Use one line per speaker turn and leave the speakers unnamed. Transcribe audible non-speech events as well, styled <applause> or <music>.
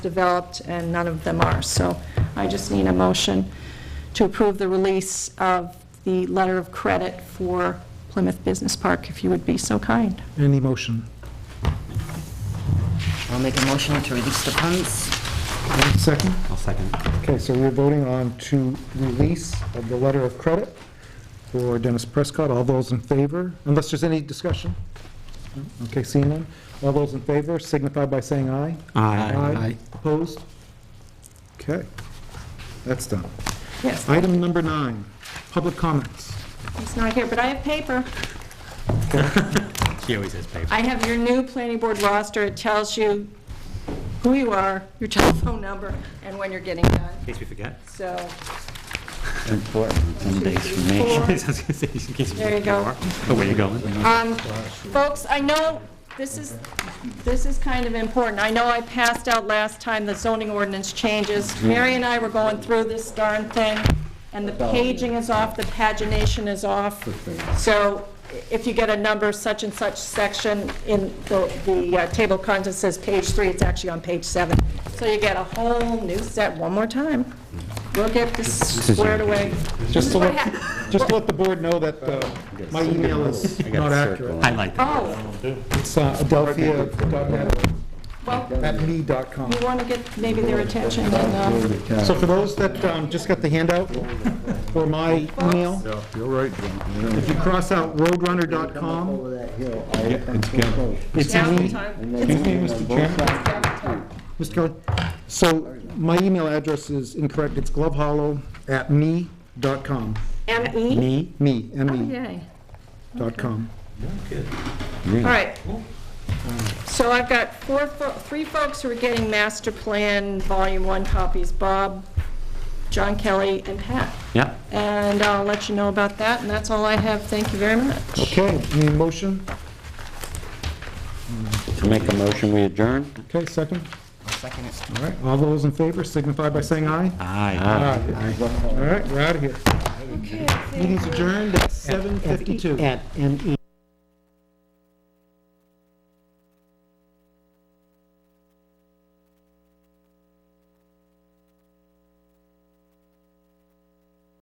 developed, and none of them are. So I just need a motion to approve the release of the letter of credit for Plymouth Business Park, if you would be so kind.
Any motion?
I'll make a motion to release the funds.
Any Second?
I'll second.
Okay, so we're voting on to release of the letter of credit for Dennis Prescott. All those in favor, unless there's any discussion? No? Okay, seeing none. All those in favor signify by saying aye. Opposed? Okay, that's done.
Yes,
Item number nine, public comments.
he's not here, but I have paper.
She always has paper.
I have your new planning board roster. It tells you who you are, your telephone number, and when you're getting done.
In case we forget. <laughs>
So
important Sundays for me.
four,
I was gonna say, in case we
There you go.
forget. Oh, where you going?
Um, Folks, I know this is, this is kind of important. I know I passed out last time the zoning ordinance changes. Mary and I were going through this darn thing, and the paging is off, the pagination is off. So if you get a number such and such section in the, the uh, table of contents says page three, it's actually on page seven. So you get a whole new set one more time. We'll get this squared away.
Just to
What
let,
hap-
just to let the board know that uh, my email is not accurate.
Highlight.
Oh,
It's uh, adelphia.net
well,
at me dot com.
You want to get maybe their attention and, uh,
So for those that um, just got the handout for my email,
You're right, John.
if you cross out roadrunner.com, it's
now's the
me,
time.
excuse me, Mr. Chairman, Mr. Kelly. So my email address is incorrect, it's glovehollow@me.com,
M-E?
me, me, M-E,
Yay.
dot com.
All right. So I've got four, fo- three folks who are getting master plan volume one copies, Bob, John Kelly, and Pat.
Yeah.
And I'll let you know about that, and that's all I have. Thank you very much.
Okay, any motion?
To make a motion, we adjourn?
Okay, second.
I'll second it.
All right, all those in favor signify by saying aye.
Aye.
Aye. All right, we're out of here.
Okay.
Meeting's adjourned at 7:52.
At M E